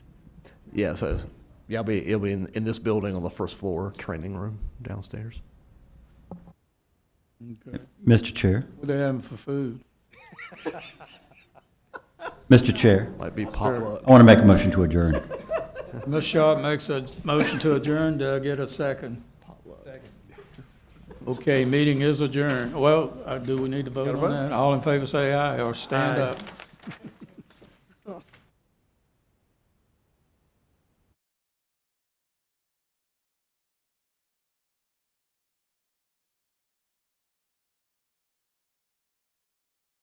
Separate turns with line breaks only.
Yeah, so, yeah, it'll be, it'll be in, in this building on the first floor, training room downstairs.
Mr. Chair,
What they having for food?
Mr. Chair,
Might be potluck.
I want to make a motion to adjourn.
Ms. Sharp makes a motion to adjourn. Do I get a second? Okay, meeting is adjourned. Well, uh, do we need to vote on that? All in favor say aye or stand up.